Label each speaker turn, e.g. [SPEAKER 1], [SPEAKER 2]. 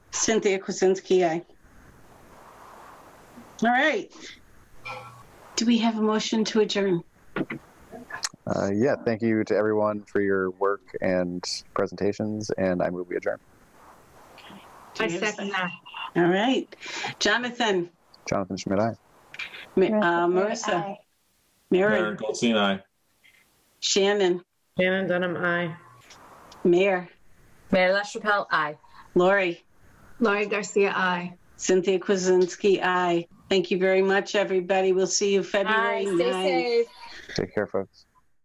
[SPEAKER 1] Cynthia Kuzinski, aye. All right. Do we have a motion to adjourn?
[SPEAKER 2] Uh, yeah, thank you to everyone for your work and presentations, and I move we adjourn.
[SPEAKER 1] Do
[SPEAKER 3] I
[SPEAKER 1] we have a
[SPEAKER 3] second that.
[SPEAKER 1] All right. Jonathan,
[SPEAKER 2] Jonathan Schmidt, aye.
[SPEAKER 1] Ma- uh, Marissa, Mary,
[SPEAKER 4] Maren Goldstein, aye.
[SPEAKER 1] Shannon,
[SPEAKER 3] Shannon Dunham, aye.
[SPEAKER 1] Mayor,
[SPEAKER 5] Mayor LaChapelle, aye.
[SPEAKER 1] Lori,
[SPEAKER 3] Laurie Garcia, aye.
[SPEAKER 1] Cynthia Kuzinski, aye. Thank you very much, everybody. We'll see you February
[SPEAKER 5] Aye, stay
[SPEAKER 1] 9th.
[SPEAKER 5] safe.
[SPEAKER 2] Take care, folks.